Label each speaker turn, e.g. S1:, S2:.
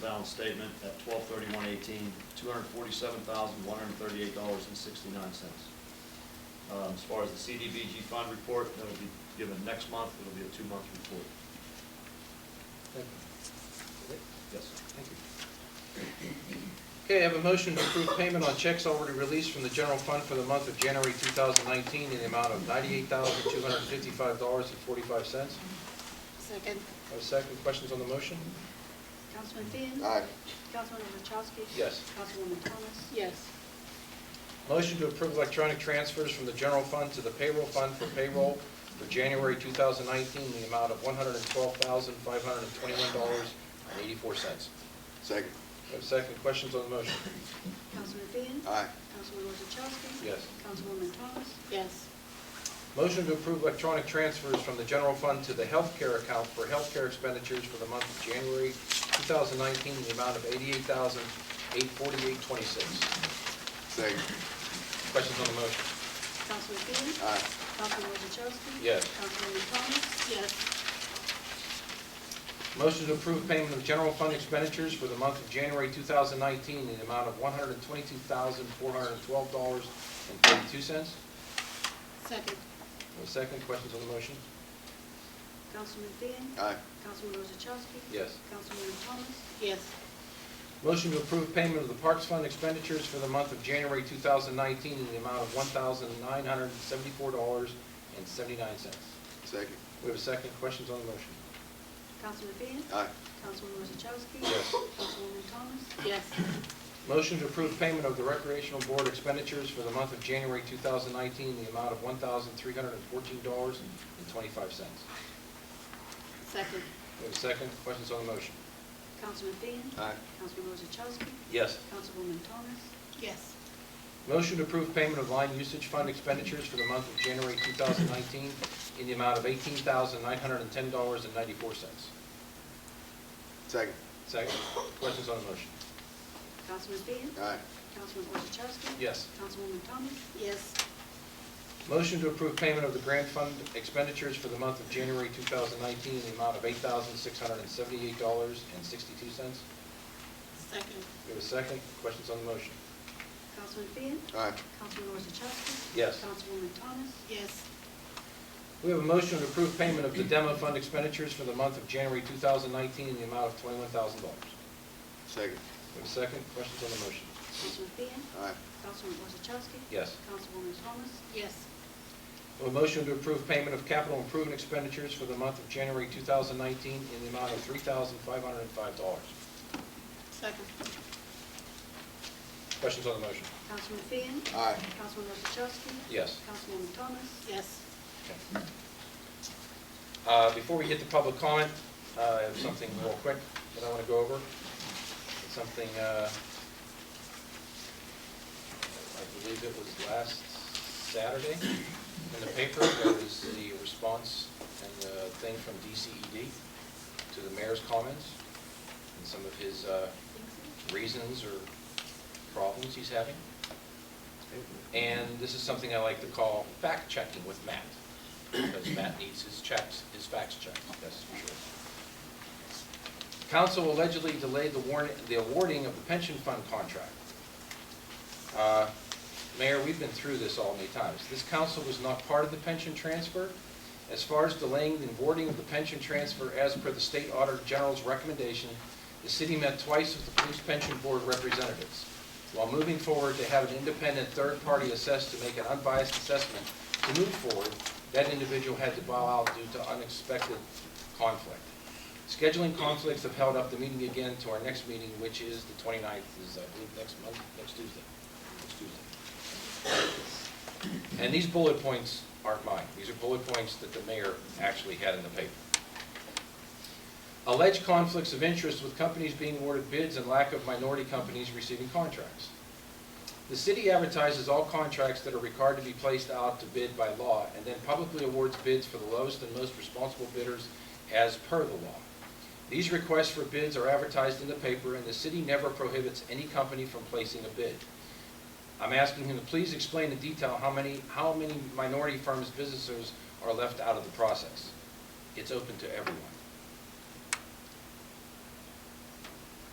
S1: balance statement at twelve thirty-one eighteen, two hundred forty-seven thousand, one hundred thirty-eight dollars and sixty-nine cents. Um, as far as the CDBG fund report, that'll be given next month, it'll be a two-month report.
S2: Thank you. Okay,
S1: Yes.
S2: Thank you. Okay, I have a motion to approve payment on checks already released from the general fund for the month of January 2019 in the amount of $98,255.45.
S3: Second.
S2: Have a second, questions on the motion?
S4: Councilman Fian.
S5: Aye.
S4: Councilwoman Wachowski.
S2: Yes.
S4: Councilwoman Thomas.
S3: Yes.
S2: Motion to approve electronic transfers from the general fund to the payroll fund for payroll for January 2019 in the amount of $112,521.84.
S5: Second.
S2: Have a second, questions on the motion?
S4: Councilman Fian.
S5: Aye.
S4: Councilwoman Wachowski.
S2: Yes.
S4: Councilwoman Thomas.
S3: Yes.
S2: Motion to approve electronic transfers from the general fund to the healthcare account for healthcare expenditures for the month of January 2019 in the amount of $88,848.26.
S5: Second.
S2: Questions on the motion?
S4: Councilman Fian.
S5: Aye.
S4: Councilwoman Wachowski.
S2: Yes.
S4: Councilwoman Thomas.
S3: Yes.
S2: Motion to approve payment of general fund expenditures for the month of January 2019 in the amount of $122,412.32.
S3: Second.
S2: Have a Second, questions on the motion?
S4: Councilman Fian.
S5: Aye.
S4: Councilwoman Wachowski.
S2: Yes.
S4: Councilwoman Thomas.
S3: Yes.
S2: Motion to approve payment of the Parks Fund expenditures for the month of January 2019 in the amount of $1,974.79.
S5: Second.
S2: We have a second. Questions on the motion?
S4: Councilman Fian.
S5: Aye.
S4: Councilwoman Wachowski.
S2: Yes.
S4: Councilwoman Thomas.
S3: Yes.
S2: Motion to approve payment of the Recreational Board expenditures for the month of January 2019 in the amount of $1,314.25. We
S3: Second.
S2: have a second. Questions on the motion?
S4: Councilman Fian.
S5: Aye.
S4: Councilwoman Wachowski.
S2: Yes.
S4: Councilwoman Thomas.
S3: Yes.
S2: Motion to approve payment of line usage fund expenditures for the month of January 2019 in the amount of $18,910.94.
S5: Second.
S2: Second. Questions on the motion?
S4: Councilman Fian.
S5: Aye.
S4: Councilwoman Wachowski.
S2: Yes.
S4: Councilwoman Thomas.
S3: Yes.
S2: Motion to approve payment of the grant fund expenditures for the month of January 2019 in the amount of $8,678.62.
S3: Second.
S2: We have a second. Questions on the motion?
S4: Councilman Fian.
S5: Aye.
S4: Councilwoman Wachowski.
S2: Yes.
S4: Councilwoman Thomas.
S3: Yes.
S2: We have a motion to approve payment of the demo fund expenditures for the month of January 2019 in the amount of $21,000.
S5: Second.
S2: We have a second. Questions on the motion?
S4: Councilman Fian.
S5: Aye.
S4: Councilwoman Wozzachowski.
S2: Yes.
S4: Councilwoman Thomas.
S3: Yes.
S2: We have a motion to approve payment of capital improvement expenditures for the month of January 2019 in the amount of $3,505.
S3: Second.
S2: Questions on the motion?
S4: Councilman Fian.
S5: Aye.
S4: Councilwoman Wozzachowski.
S2: Yes.
S4: Councilwoman Thomas.
S3: Yes.
S2: Uh, Before we hit the public comment, uh, I have something real quick that I want to go over. It's Something, uh, I believe it was last Saturday in the paper, there was the response and the thing from DCED to the mayor's comments and some of his uh, reasons or problems he's having. And this is something I like to call fact-checking with Matt, because Matt needs his checks, his facts checked, that's for sure. Council allegedly delayed the warning, the awarding of the pension fund contract. Uh, Mayor, we've been through this all many times. This council was not part of the pension transfer. As far as delaying the awarding of the pension transfer as per the state auditor general's recommendation, the city met twice with the police pension board representatives. While moving forward to have an independent third party assessed to make an unbiased assessment to move forward, that individual had to bow out due to unexpected conflict. Scheduling conflicts have held up the meeting again to our next meeting, which is the 29th, is I believe next month, next Tuesday. Next Tuesday. And these bullet points aren't mine. These are bullet points that the mayor actually had in the paper. Alleged conflicts of interest with companies being awarded bids and lack of minority companies receiving contracts. The city advertises all contracts that are required to be placed out to bid by law and then publicly awards bids for the lowest and most responsible bidders as per the law. These requests for bids are advertised in the paper and the city never prohibits any company from placing a bid. I'm asking him to please explain in detail how many, how many minority firms' businesses are left out of the process. It's open to everyone.